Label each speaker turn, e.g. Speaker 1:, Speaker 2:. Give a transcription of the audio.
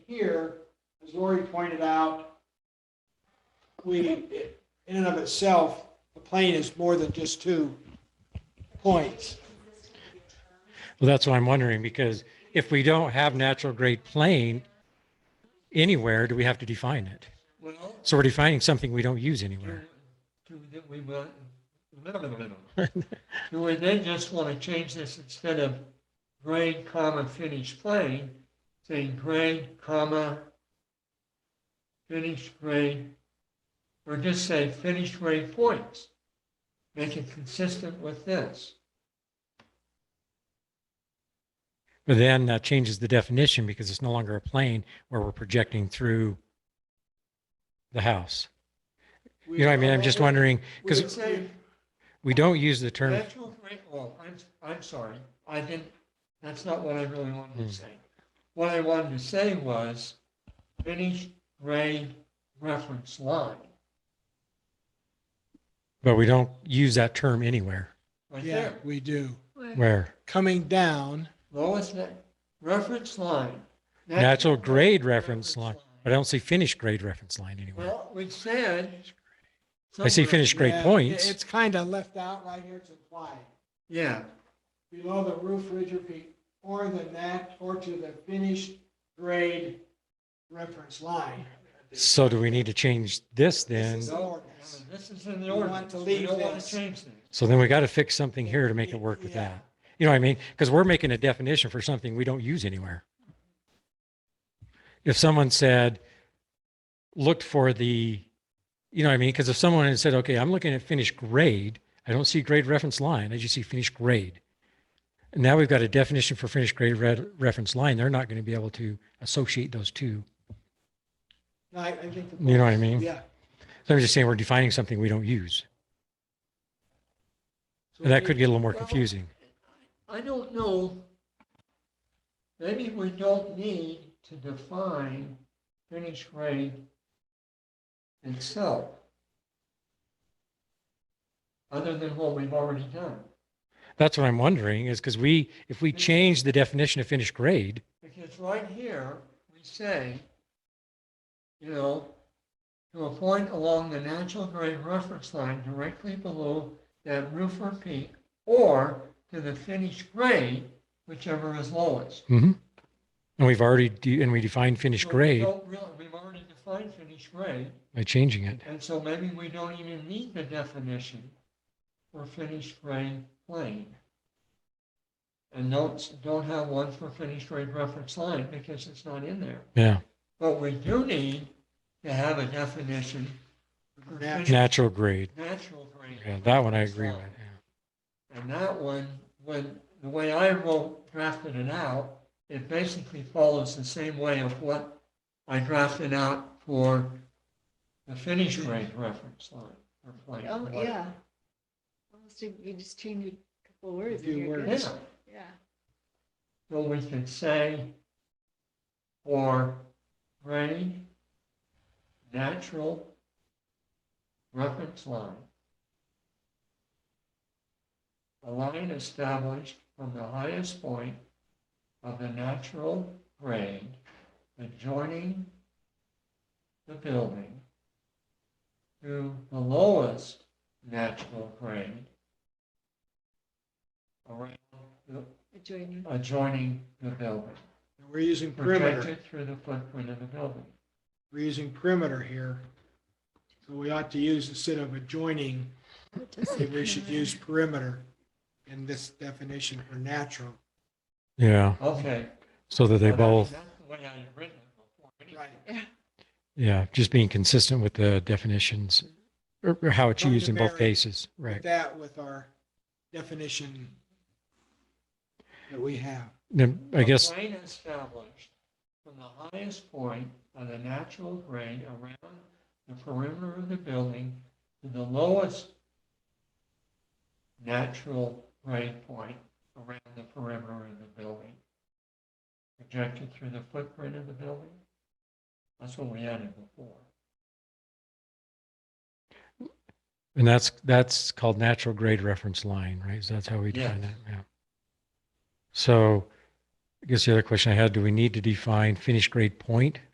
Speaker 1: here, as Lori pointed out, we, in and of itself, the plane is more than just two points.
Speaker 2: Well, that's what I'm wondering, because if we don't have natural grade plain anywhere, do we have to define it?
Speaker 3: Well,
Speaker 2: So we're defining something we don't use anywhere.
Speaker 3: do that we will, do we then just want to change this instead of grade, comma, finished plane, saying grade, comma, finished grade, or just say finished grade points? Make it consistent with this.
Speaker 2: But then that changes the definition because it's no longer a plane where we're projecting through the house. You know what I mean? I'm just wondering,
Speaker 3: We
Speaker 2: because
Speaker 3: would say
Speaker 2: we don't use the term,
Speaker 3: Natural grade, well, I'm, I'm sorry, I didn't, that's not what I really wanted
Speaker 2: Hmm.
Speaker 3: to say. What I wanted to say was finished grade reference line.
Speaker 2: but we don't use that term anywhere.
Speaker 3: Right
Speaker 1: Yeah,
Speaker 3: there,
Speaker 1: we do.
Speaker 2: Where
Speaker 1: Coming down,
Speaker 3: lowest na- reference line.
Speaker 2: natural grade reference line, but I don't see finished grade reference line anywhere.
Speaker 3: Well, we said.
Speaker 2: I see
Speaker 3: somewhere-
Speaker 2: finished grade
Speaker 1: Yeah,
Speaker 2: points.
Speaker 1: It's kind of left out right here, it's implied.
Speaker 3: Yeah,
Speaker 1: Below the roof ridge or peak, or the nat, or to the finished grade reference line.
Speaker 2: So do we need to change this then?
Speaker 1: This is-
Speaker 3: no, this is in the
Speaker 1: We want
Speaker 3: ordinance,
Speaker 1: to
Speaker 3: we
Speaker 1: leave
Speaker 3: don't want
Speaker 1: this.
Speaker 3: to change this.
Speaker 2: So then we got to fix something here to make it work with
Speaker 1: Yeah.
Speaker 2: that. You know what I mean? Because we're making a definition for something we don't use anywhere. If someone said, looked for the, you know what I mean? Because if someone had said, okay, I'm looking at finished grade, I don't see grade reference line, I just see finished grade. And now we've got a definition for finished grade re- reference line. They're not going to be able to associate those two.
Speaker 1: No, I, I think. the-
Speaker 2: You know what I mean?
Speaker 1: Yeah.
Speaker 2: So I'm just saying we're defining something we don't use.
Speaker 3: So
Speaker 2: And that
Speaker 3: we-
Speaker 2: could get a little more
Speaker 3: well,
Speaker 2: confusing.
Speaker 3: I don't know. Maybe we don't need to define finished grade itself. Other than what we've already done.
Speaker 2: That's what I'm wondering is because we, if we change the definition of finished grade,
Speaker 3: Because right here, we say, you know, to a point along the natural grade reference line directly below that roof or peak, or to the finished grade, whichever is lowest.
Speaker 2: Mm-hmm. and we've already, de- and we defined finished
Speaker 3: Well, we
Speaker 2: grade
Speaker 3: don't really- We've already defined finished grade,
Speaker 2: by changing it.
Speaker 3: and so maybe we don't even need the definition for finished grade plane. And don't, don't have one for finished grade reference line because it's not in there.
Speaker 2: Yeah.
Speaker 3: But we do need to have a definition for finished
Speaker 2: Natural grade.
Speaker 3: natural grade.
Speaker 2: Yeah. That one I
Speaker 3: reference
Speaker 2: agree with.
Speaker 3: line. And that one, when, the way I wrote, drafted it out, it basically follows the same way of what I drafted out for the finish grade reference line. or plan,
Speaker 4: Oh,
Speaker 3: whatever.
Speaker 4: yeah. Almost, if you just change a couple words.
Speaker 1: A few
Speaker 4: and you're good.
Speaker 1: words.
Speaker 3: Yeah,
Speaker 4: Yeah.
Speaker 3: so we can say for grade, natural reference line. A line established from the highest point of the natural grade adjoining the building to the lowest natural grade around the
Speaker 4: Adjoining.
Speaker 3: adjoining the building,
Speaker 1: And We're using perimeter,
Speaker 3: projected through the footprint of the building.
Speaker 1: we're using perimeter here. So we ought to use instead of adjoining, maybe we should use perimeter in this definition for natural.
Speaker 2: Yeah. Yeah.
Speaker 3: Okay.
Speaker 2: So that they
Speaker 3: Well, that-
Speaker 2: both,
Speaker 3: That's the way I had written it before. anyway.
Speaker 1: Right.
Speaker 2: yeah, just being consistent with the definitions or or how it's
Speaker 1: Not to
Speaker 2: used in both
Speaker 1: vary.
Speaker 2: cases. Right.
Speaker 1: That with our definition that we have.
Speaker 2: Then I guess,
Speaker 3: A plane established from the highest point of the natural grade around the perimeter of the building to the lowest natural grade point around the perimeter of the building. Projected through the footprint of the building. That's what we added before.
Speaker 2: and that's, that's called natural grade reference line, right? So that's how we define that.
Speaker 3: Yes.
Speaker 2: Yeah. So I guess the other question I had, do we need to define finished grade point?